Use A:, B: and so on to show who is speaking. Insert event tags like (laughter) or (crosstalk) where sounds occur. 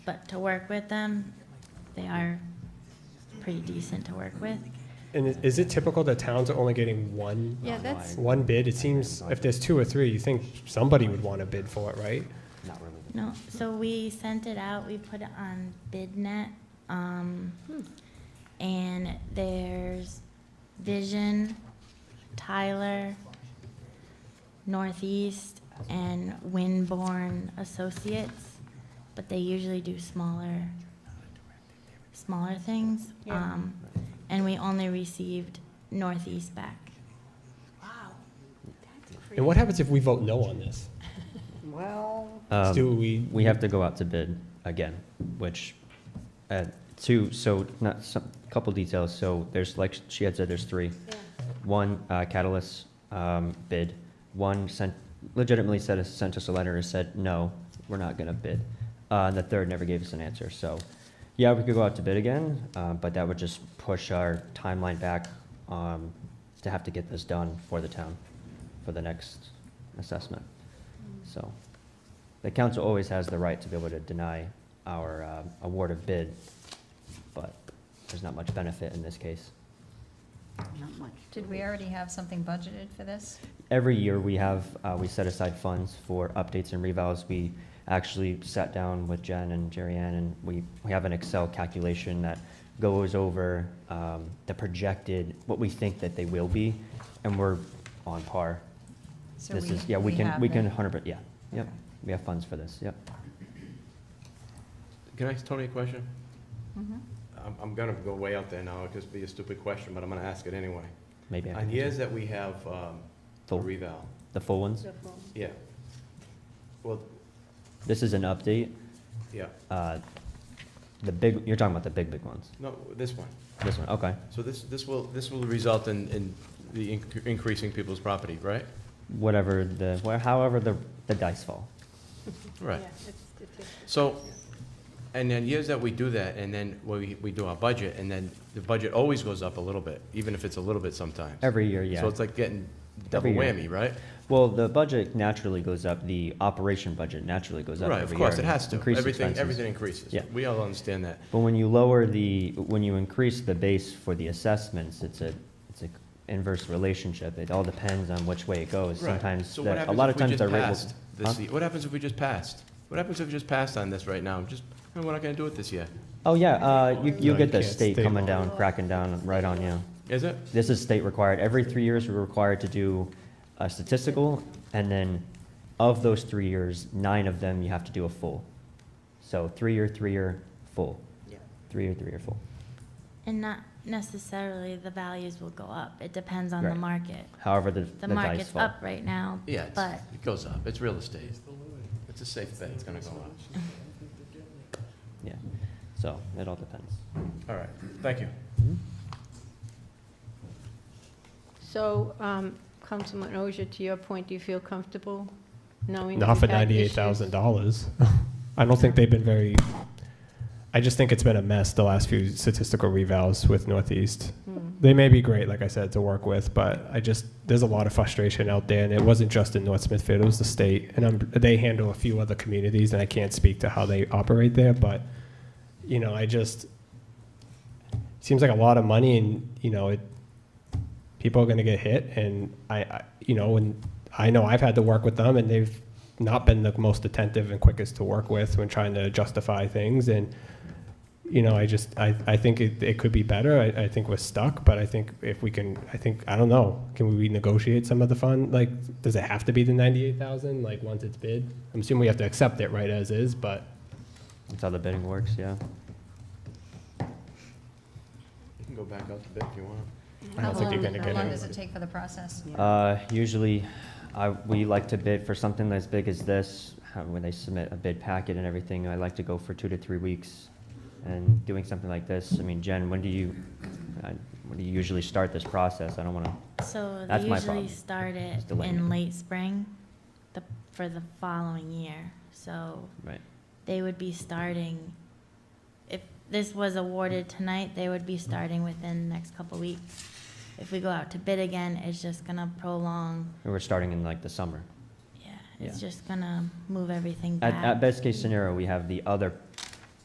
A: But to work with them, they are pretty decent to work with.
B: And i- is it typical that towns are only getting one,
C: Yeah, that's,
B: one bid? It seems if there's two or three, you think somebody would want to bid for it, right?
D: Not really.
A: No, so we sent it out, we put it on BidNet, um, and there's Vision, Tyler, Northeast, and Winborn Associates, but they usually do smaller, smaller things.
C: Yeah.
A: Um, and we only received Northeast back.
B: And what happens if we vote no on this?
C: well,
D: Um,
B: Do we?
D: We have to go out to bid again, which, uh, two, so, not, some, couple details, so there's, like she had said, there's three.
C: yeah,
D: One, uh, Catalyst, um, bid, one sent, legitimately said, us- sent us a letter and said, no, we're not gonna bid. Uh, and the third never gave us an answer, so, yeah, we could go out to bid again, uh, but that would just push our timeline back, um, to have to get this done for the town, for the next assessment.
C: Mm.
D: So, the council always has the right to be able to deny our, uh, award of bid, but there's not much benefit in this case.
C: not much.
E: Did we already have something budgeted for this?
D: Every year, we have, uh, we set aside funds for updates and revals. We actually sat down with Jen and Jerry Ann, and we, we have an Excel calculation that goes over, um, the projected, what we think that they will be, and we're on par.
E: So
D: This is, yeah, we can,
E: have
D: we can
E: it.
D: hundred, per- yeah, yep,
E: Okay.
D: we have funds for this, yep.
F: Can I ask Tony a question?
E: Mhm.
F: I'm, I'm gonna go way out there now, it'll just be a stupid question, but I'm gonna ask it anyway.
D: Maybe I
F: On
D: can,
F: years that we have, um, a
D: full,
F: reval,
D: the full ones.
F: yeah. Well,
D: This is an update,
F: yeah,
D: uh, the big, you're talking about the big, big ones.
F: no, this one.
D: This one, okay.
F: So this, this will, this will result in, in the inc- increasing people's property, right?
D: Whatever the, where, however the, the dice fall.
F: Right. So, and then years that we do that, and then we, we do our budget, and then the budget always goes up a little bit, even if it's a little bit sometimes.
D: Every year, yeah.
F: So it's like getting double
D: Every year.
F: whammy, right?
D: Well, the budget naturally goes up, the operation budget naturally goes up
F: Right, of
D: every year.
F: course, it
D: and
F: has to.
D: increased
F: Everything,
D: expenses.
F: everything increases.
D: Yeah.
F: We all understand that.
D: But when you lower the, when you increase the base for the assessments, it's a, it's a inverse relationship. It all depends on which way it goes.
F: Right.
D: Sometimes,
F: So what
D: the- a
F: happens
D: lot of
F: if we
D: times
F: just
D: our rate
F: passed
D: will.
F: this
D: huh?
F: ye- What happens if we just passed? What happens if we just passed on this right now? Just, no, we're not gonna do it this year.
D: Oh, yeah, uh, you, you'll
B: No, you
D: get the
B: can't.
D: state
B: State
D: coming
B: law.
D: down, cracking down right on you.
F: Is it?
D: This is state required. Every three years, we're required to do a statistical, and then of those three years, nine of them, you have to do a full. So three-year, three-year, full.
C: Yeah.
D: Three-year, three-year, full.
A: And not necessarily the values will go up, it depends on the
D: Right.
A: market.
D: However, the,
A: The
D: the dice
A: market's
D: fall.
A: up right now,
F: Yeah, it's-
A: but
F: it goes up. It's real estate. It's a safe bet. It's gonna go up.
D: Yeah, so it all depends.
F: All right, thank you.
C: So, um, Councilman Ozier, to your point, do you feel comfortable knowing? that
B: Not for
C: we've had
B: ninety-eight
C: issues?
B: thousand dollars. (laughs) I don't think they've been very, I just think it's been a mess the last few statistical revals with Northeast.
C: Hmm.
B: They may be great, like I said, to work with, but I just, there's a lot of frustration out there, and it wasn't just in North Smithfield, it was the state. And i they handle a few other communities, and I can't speak to how they operate there, but, you know, I just, seems like a lot of money, and, you know, it, people are gonna get hit, and I, I, you know, and I know I've had to work with them, and they've not been the most attentive and quickest to work with when trying to justify things, and, you know, I just, I, I think it, it could be better. I, I think we're stuck, but I think if we can, I think, I don't know, can we renegotiate some of the fund? Like, does it have to be the ninety-eight thousand, like, once it's bid? I'm assuming we have to accept it right as is, but
D: That's how the bidding works, yeah.
F: You can go back out to bed if you want.
B: I don't think you're gonna
E: How long-
B: get
E: How long
B: it.
E: does it take for the process?
D: Uh, usually, I, we like to bid for something as big as this, how- when they submit a bid packet and everything, I like to go for two to three weeks. And doing something like this, I mean, Jen, when do you, uh, when do you usually start this process? I don't wanna,
A: So they
D: That's my
A: usually
D: problem,
A: start
D: is
A: it
D: the length.
A: in late spring, the, for the following year. So
D: right,
A: they would be starting, if this was awarded tonight, they would be starting within the next couple weeks. If we go out to bid again, it's just gonna prolong,
D: we're starting in like the summer.
A: yeah, it's
D: Yeah.
A: just gonna move everything
D: At,
A: back.
D: at best case scenario, we have the other